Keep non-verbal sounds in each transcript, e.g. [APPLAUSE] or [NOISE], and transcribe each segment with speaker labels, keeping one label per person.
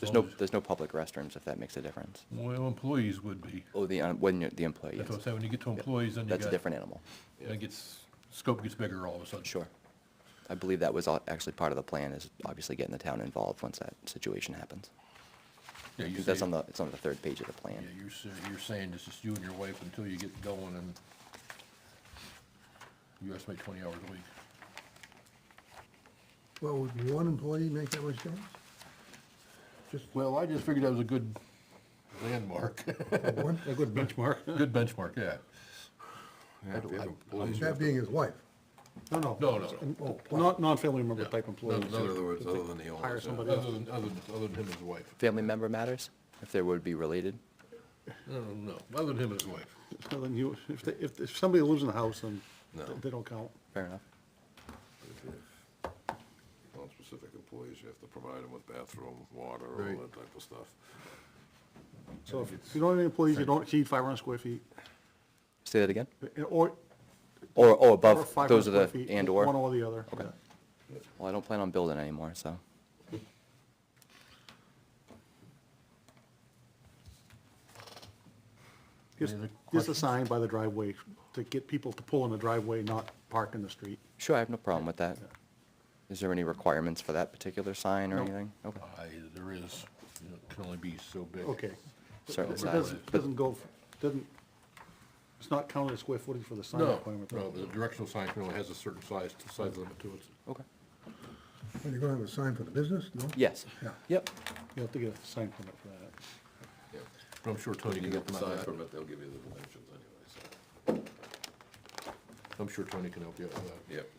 Speaker 1: There's
Speaker 2: long
Speaker 1: no,
Speaker 2: as-
Speaker 1: there's no public restrooms, if that makes a difference.
Speaker 2: Well, employees would be.
Speaker 1: Oh, the, um, when you're the employee,
Speaker 2: That's what I'm
Speaker 1: yes.
Speaker 2: saying, when you get to employees, then you got.
Speaker 1: That's a different animal.
Speaker 2: Then it gets, scope gets bigger all of a sudden.
Speaker 1: Sure. I believe that was al- actually part of the plan, is obviously getting the town involved once that situation happens.
Speaker 2: Yeah,
Speaker 1: I
Speaker 2: you
Speaker 1: think
Speaker 2: say,
Speaker 1: that's on
Speaker 2: yeah,
Speaker 1: the, it's on the third page of the plan.
Speaker 2: you're, sa- you're saying it's just you and your wife until you get going and you estimate twenty hours a week.
Speaker 3: Well, would one employee make that much difference? Just
Speaker 2: Well, I just figured that was a good landmark,
Speaker 3: one, a good bench.
Speaker 4: Benchmark?
Speaker 2: [LAUGHS] good benchmark, yeah.
Speaker 4: Yeah, if you have employees, you
Speaker 3: That
Speaker 4: have to-
Speaker 3: being his wife.
Speaker 5: No, no.
Speaker 2: No, no, no.
Speaker 5: And-
Speaker 3: Oh, wow.
Speaker 5: Non, non-family member
Speaker 2: Yeah.
Speaker 5: type employees.
Speaker 4: In other words, other than the owners.
Speaker 5: Hire
Speaker 4: yeah.
Speaker 5: somebody
Speaker 2: Other
Speaker 5: else.
Speaker 2: than, other than, other than him and his wife.
Speaker 1: Family member matters, if they would be related.
Speaker 2: No, no, no, other than him and his wife.
Speaker 5: Other than you, if, they- if, if somebody lives in the house, then
Speaker 4: No.
Speaker 5: they don't count.
Speaker 1: Fair enough.
Speaker 4: If you have Non-specific employees, you have to provide them with bathroom, water,
Speaker 2: Right.
Speaker 4: all that type of stuff.
Speaker 5: So if you don't have any employees, you don't exceed five hundred square feet, eh,
Speaker 1: Say that again?
Speaker 5: or.
Speaker 1: Or, oh,
Speaker 5: or
Speaker 1: above,
Speaker 5: 500
Speaker 1: those are
Speaker 5: square
Speaker 1: the
Speaker 5: feet,
Speaker 1: and/or.
Speaker 5: One or the other.
Speaker 1: Okay.
Speaker 5: yeah.
Speaker 1: Well, I don't plan on building anymore, so.
Speaker 5: Just,
Speaker 2: Any other
Speaker 5: just a
Speaker 2: questions?
Speaker 5: sign by the driveway to get people to pull in the driveway, not park in the street.
Speaker 1: Sure, I have no problem with that. Is there any requirements for that particular sign or
Speaker 5: No.
Speaker 1: anything? Okay,
Speaker 2: I, there is, you know, it can only be so big.
Speaker 5: Okay.
Speaker 1: certain
Speaker 5: It
Speaker 1: size.
Speaker 5: doesn't,
Speaker 1: But
Speaker 5: doesn't go, doesn't, it's not counted as square footage for the sign
Speaker 2: No,
Speaker 5: requirement.
Speaker 2: no, the directional sign can only has a certain size, size limit to it.
Speaker 1: Okay.
Speaker 3: Well, you're gonna have a sign for the business, no?
Speaker 1: Yes.
Speaker 3: Yeah.
Speaker 1: Yep.
Speaker 5: You have to get a sign permit for that.
Speaker 4: Yeah.
Speaker 2: But I'm sure Tony
Speaker 4: You
Speaker 2: can
Speaker 4: get the
Speaker 2: help you
Speaker 4: size
Speaker 2: out with
Speaker 4: permit, they'll give you the dimensions anyway, so,
Speaker 2: that. I'm sure Tony can help you out with that.
Speaker 4: yep.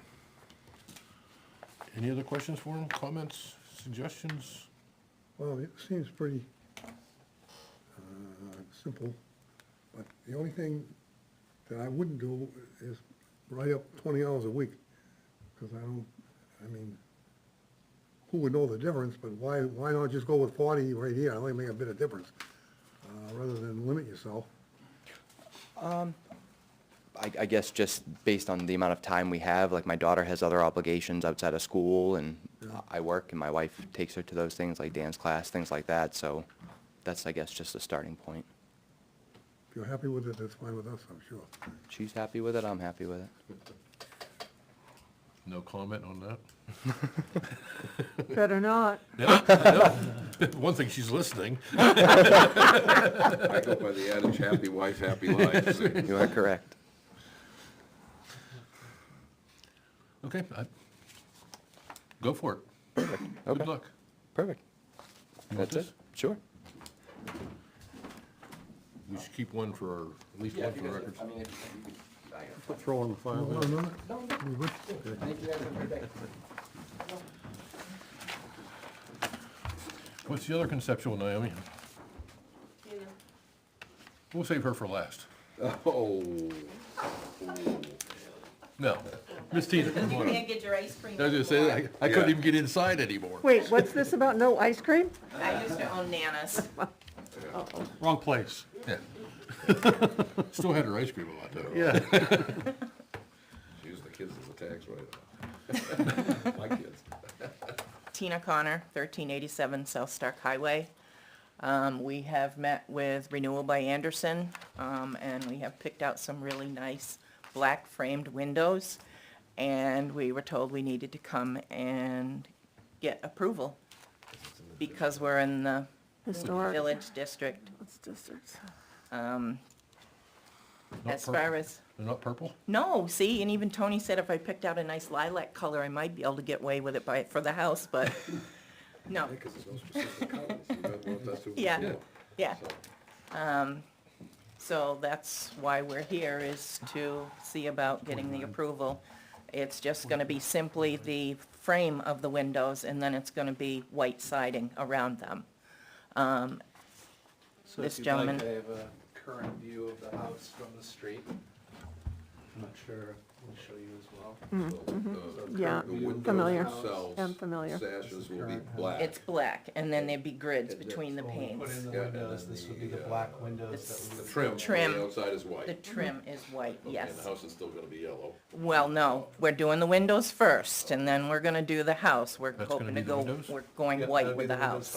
Speaker 2: Any other questions for him, comments, suggestions?
Speaker 3: Well, it seems pretty, uh, simple, but the only thing that I wouldn't do is write up twenty hours a week, because I don't, I mean, who would know the difference, but why, why not just go with forty right here, I only make a bit of difference, uh, rather than limit yourself.
Speaker 1: I, I guess just based on the amount of time we have, like my daughter has other obligations outside of school and I work and my wife takes her to those things like dance class, things like that. So that's, I guess, just a starting point.
Speaker 3: If you're happy with it, that's fine with us, I'm sure.
Speaker 1: She's happy with it, I'm happy with it.
Speaker 2: No comment on that? [LAUGHS]
Speaker 6: Better not.
Speaker 2: One thing, she's listening.
Speaker 4: I go by the adage, happy wife, happy life. so-
Speaker 1: You are correct.
Speaker 2: Okay, I, go for it. Good
Speaker 1: Okay,
Speaker 2: luck.
Speaker 1: perfect.
Speaker 2: You want
Speaker 1: That's it?
Speaker 2: this?
Speaker 1: Sure.
Speaker 2: We should keep one for, our- at least one for the records.
Speaker 5: Put throw in the fire.
Speaker 3: Well,
Speaker 5: there.
Speaker 3: no, we would-
Speaker 2: What's the other conceptual, Naomi? We'll save her for last.
Speaker 4: [LAUGHS] Oh,
Speaker 7: [LAUGHS]
Speaker 2: No, Miss Tina, come on up.
Speaker 7: Can't get your ice cream.
Speaker 2: I was gonna say, I- I couldn't
Speaker 4: Yeah.
Speaker 2: even get inside anymore.
Speaker 6: Wait, what's this about no ice cream?
Speaker 7: I used to own Nana's.
Speaker 5: Wrong place.
Speaker 2: Yeah. [LAUGHS] Still had her ice cream a lot though.
Speaker 5: Yeah.
Speaker 4: she used the kids as a tax
Speaker 2: [LAUGHS]
Speaker 4: write-off. My kids.
Speaker 7: Tina Connor, thirteen eighty-seven South Stark Highway. Um, we have met with Renewal by Anderson, um, and we have picked out some really nice black framed windows. And we were told we needed to come and get approval because we're in the
Speaker 6: Historic
Speaker 7: village district.
Speaker 6: districts.
Speaker 7: Um,
Speaker 2: Not
Speaker 7: as far
Speaker 2: purple.
Speaker 7: as.
Speaker 2: They're not purple?
Speaker 7: No, see, and even Tony said if I picked out a nice lilac color, I might be able to get away with it by, for the house,
Speaker 4: [LAUGHS]
Speaker 7: but, no,
Speaker 4: Because there's no specific colors. You might want that to-
Speaker 7: Yeah. yeah. Um,
Speaker 4: So,
Speaker 7: So that's why we're here, is to see about getting the approval. It's just gonna be simply the frame of the windows, and then it's gonna be white siding around them.
Speaker 8: So
Speaker 7: this
Speaker 8: if you'd like,
Speaker 7: gentleman.
Speaker 8: I have a current view of the house from the street. I'm not sure, we'll show you as well.
Speaker 4: the-
Speaker 6: Yeah,
Speaker 4: The windows
Speaker 6: familiar.
Speaker 4: themselves,
Speaker 6: Am familiar.
Speaker 4: Sashes will be black.
Speaker 7: It's black, and then there'd be grids between the
Speaker 8: When we Put
Speaker 7: panes.
Speaker 8: in the
Speaker 4: Yeah, and
Speaker 8: windows,
Speaker 4: then
Speaker 8: this would be
Speaker 4: the,
Speaker 8: the
Speaker 4: uh,
Speaker 8: black windows
Speaker 7: This-
Speaker 8: that
Speaker 4: The
Speaker 8: would.
Speaker 4: trim, on
Speaker 7: Trim.
Speaker 4: the outside is white.
Speaker 7: The trim is white,
Speaker 4: Okay,
Speaker 7: yes.
Speaker 4: And the house is still gonna be yellow.
Speaker 7: Well, no, we're doing the windows first, and then we're gonna do the house. We're
Speaker 2: That's gonna
Speaker 7: hoping
Speaker 2: be
Speaker 7: to
Speaker 2: the
Speaker 7: go,
Speaker 2: windows?
Speaker 7: we're going
Speaker 8: Yeah,
Speaker 7: white
Speaker 8: that'll be
Speaker 7: with the
Speaker 8: the windows
Speaker 7: house.